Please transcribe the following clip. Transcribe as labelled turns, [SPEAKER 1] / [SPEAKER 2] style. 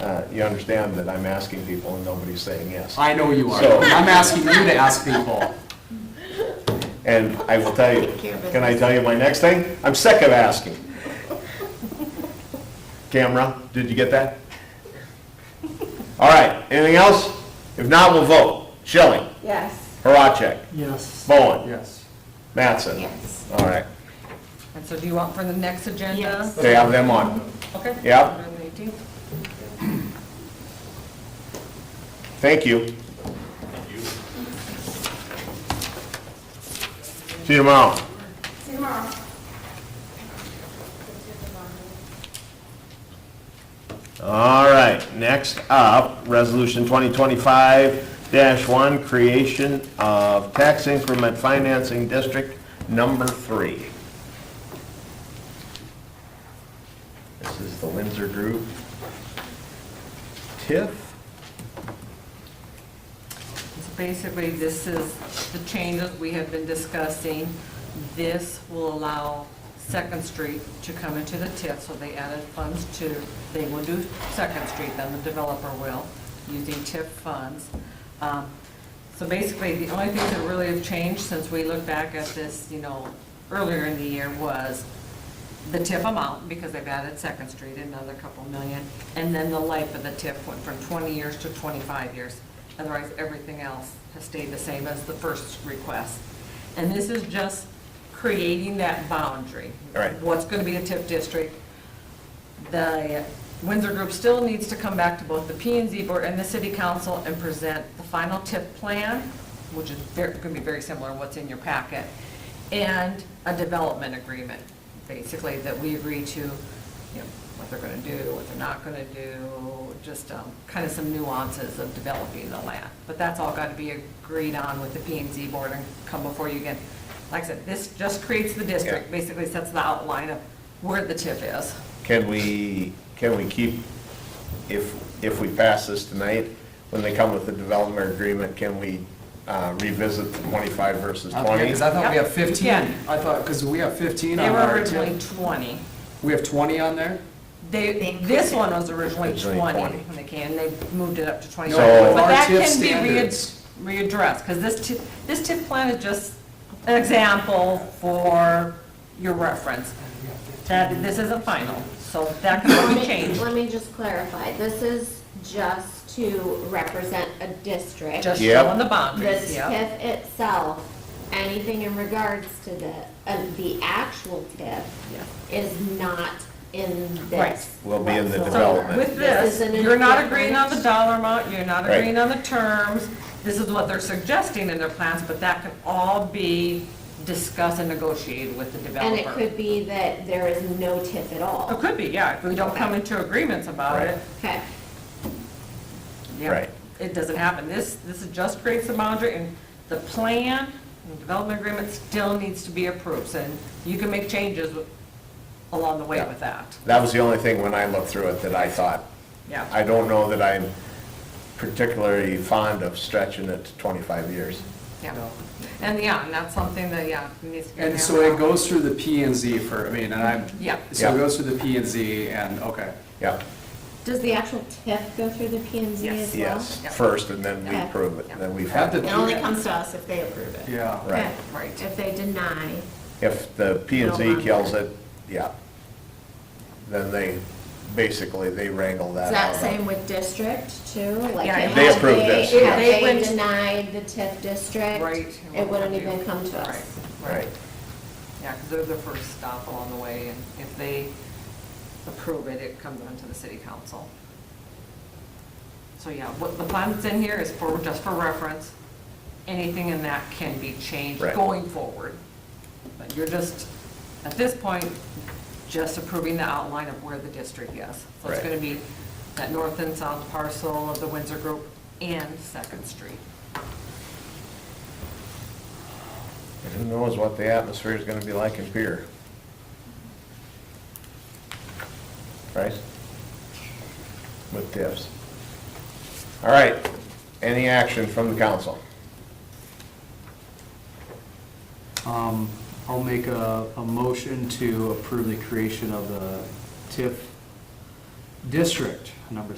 [SPEAKER 1] Uh, You understand that I'm asking people and nobody's saying yes.
[SPEAKER 2] I know you are.
[SPEAKER 1] So-
[SPEAKER 2] And I'm asking you to ask people.
[SPEAKER 1] And I will tell you,
[SPEAKER 3] Take care of
[SPEAKER 1] can I tell you my next thing? I'm sick of asking. Camera, did you get that? All right, anything else? If not, we'll vote. Schilling,
[SPEAKER 3] Yes.
[SPEAKER 1] Horacek,
[SPEAKER 2] Yes.
[SPEAKER 1] Bowen,
[SPEAKER 2] Yes.
[SPEAKER 1] Mattson.
[SPEAKER 3] Yes.
[SPEAKER 1] All right,
[SPEAKER 4] And so do you want for the next agenda?
[SPEAKER 3] Yes.
[SPEAKER 1] they have them on.
[SPEAKER 4] Okay.
[SPEAKER 1] Yep.
[SPEAKER 4] On the 18th.
[SPEAKER 1] Thank you. See you tomorrow.
[SPEAKER 3] See you tomorrow.
[SPEAKER 1] All right, next up, Resolution 2025-1, creation of tax increment financing district number three. This is the Windsor Group. TIF?
[SPEAKER 4] So Basically, this is the changes we have been discussing. This will allow Second Street to come into the TIF, so they added funds to, they will do Second Street, then the developer will, using TIF funds. Um, So basically, the only things that really have changed since we looked back at this, you know, earlier in the year was the TIF amount, because they've added Second Street, another couple million, and then the life of the TIF went from 20 years to 25 years. Otherwise, everything else has stayed the same as the first request. And this is just creating that boundary.
[SPEAKER 1] All right.
[SPEAKER 4] What's going to be the TIF district, the Windsor Group still needs to come back to both the P and Z Board and the City Council and present the final TIP plan, which is going to be very similar to what's in your packet, and a development agreement, basically, that we agree to, you know, what they're going to do, what they're not going to do, just kind of some nuances of developing the land. But that's all got to be agreed on with the P and Z Board and come before you again. Like I said, this just creates the district,
[SPEAKER 1] Yeah.
[SPEAKER 4] basically sets the outline of where the TIP is.
[SPEAKER 1] Can we, can we keep, if, if we pass this tonight, when they come with the development agreement, can we uh, revisit the 25 versus 20?
[SPEAKER 2] Okay, because I thought we
[SPEAKER 4] Yep,
[SPEAKER 2] have 15.
[SPEAKER 4] you
[SPEAKER 2] I
[SPEAKER 4] can.
[SPEAKER 2] thought, because we have 15
[SPEAKER 4] They
[SPEAKER 2] on
[SPEAKER 4] were
[SPEAKER 2] our
[SPEAKER 4] originally
[SPEAKER 2] TIF.
[SPEAKER 4] 20.
[SPEAKER 2] We have 20 on there?
[SPEAKER 4] They, this one was originally
[SPEAKER 1] Originally
[SPEAKER 4] 20
[SPEAKER 1] 20.
[SPEAKER 4] when they came, they moved it up to 25.
[SPEAKER 1] So-
[SPEAKER 4] But that
[SPEAKER 2] Our TIF
[SPEAKER 4] can be read-
[SPEAKER 2] standards.
[SPEAKER 4] readdressed, because this TIF, this TIF plan is just an example for your reference. That, this isn't final, so that can be changed.
[SPEAKER 3] Let me just clarify, this is just to represent a district.
[SPEAKER 4] Just
[SPEAKER 1] Yep.
[SPEAKER 4] showing the
[SPEAKER 3] The
[SPEAKER 4] boundaries, yeah.
[SPEAKER 3] TIF itself, anything in regards to the, of the actual TIF
[SPEAKER 4] Yeah.
[SPEAKER 3] is not in
[SPEAKER 4] Right.
[SPEAKER 3] this.
[SPEAKER 1] Will be in the
[SPEAKER 3] whatsoever.
[SPEAKER 1] development.
[SPEAKER 4] With
[SPEAKER 3] This
[SPEAKER 4] this,
[SPEAKER 3] is an
[SPEAKER 4] you're not
[SPEAKER 3] indifferent-
[SPEAKER 4] agreeing on the dollar amount, you're not
[SPEAKER 1] Right.
[SPEAKER 4] agreeing on the terms. This is what they're suggesting in their plans, but that can all be discussed and negotiated with the
[SPEAKER 3] And
[SPEAKER 4] developer.
[SPEAKER 3] it could be that there is no TIF at all.
[SPEAKER 4] It could be, yeah, if we don't come into agreements about
[SPEAKER 1] Right.
[SPEAKER 4] it,
[SPEAKER 3] Okay,
[SPEAKER 4] yeah,
[SPEAKER 1] Right.
[SPEAKER 4] it doesn't happen. This, this is just creates the boundary, and the plan and development agreement still needs to be approved, and you can make changes along the way
[SPEAKER 1] Yeah.
[SPEAKER 4] with that,
[SPEAKER 1] That was the only thing when I looked through it that I thought,
[SPEAKER 4] yeah.
[SPEAKER 1] I don't know that I'm particularly fond of stretching it to 25 years.
[SPEAKER 4] Yeah. And, yeah, and that's something that, yeah, needs to be.
[SPEAKER 2] And so it goes through the P and Z for, I mean, and I'm,
[SPEAKER 4] Yeah.
[SPEAKER 2] so
[SPEAKER 1] Yeah.
[SPEAKER 2] it goes through the P and Z and, okay.
[SPEAKER 1] Yeah,
[SPEAKER 3] does the actual TIF go through the P and Z
[SPEAKER 4] Yes.
[SPEAKER 3] as well?
[SPEAKER 1] yes,
[SPEAKER 4] Yeah.
[SPEAKER 1] first, and then we
[SPEAKER 3] Okay.
[SPEAKER 1] approve it, then we
[SPEAKER 2] Have the-
[SPEAKER 1] have,
[SPEAKER 3] It only comes to us if they approve it.
[SPEAKER 2] Yeah.
[SPEAKER 1] right.
[SPEAKER 3] Okay.
[SPEAKER 4] Right.
[SPEAKER 3] If they deny,
[SPEAKER 1] If the P and Z
[SPEAKER 3] No.
[SPEAKER 1] kills it, yeah, then they, basically, they wrangle
[SPEAKER 3] is
[SPEAKER 1] that out.
[SPEAKER 3] that same with district too? Like,
[SPEAKER 4] Yeah,
[SPEAKER 3] if
[SPEAKER 4] They
[SPEAKER 1] approved this,
[SPEAKER 3] If
[SPEAKER 4] yeah. They
[SPEAKER 3] they
[SPEAKER 4] went-
[SPEAKER 3] denied the TIF district,
[SPEAKER 4] Right.
[SPEAKER 3] it wouldn't even come to us.
[SPEAKER 4] Right, right.
[SPEAKER 1] Right.
[SPEAKER 4] Yeah, because they're the first stop along the way, and if they approve it, it comes onto the city council. So yeah, what the plan that's in here is for, just for reference. Anything in that can be changed
[SPEAKER 1] Right.
[SPEAKER 4] going forward. But you're just, at this point, just approving the outline of where the district is. So it's
[SPEAKER 1] Right.
[SPEAKER 4] going to be that north and south parcel of the Windsor Group and Second Street.
[SPEAKER 1] And Who knows what the atmosphere is gonna be like in Pier? Right? With tips. All right, any action from the council?
[SPEAKER 5] Um, I'll make a, a motion to approve the creation of the TIF district, number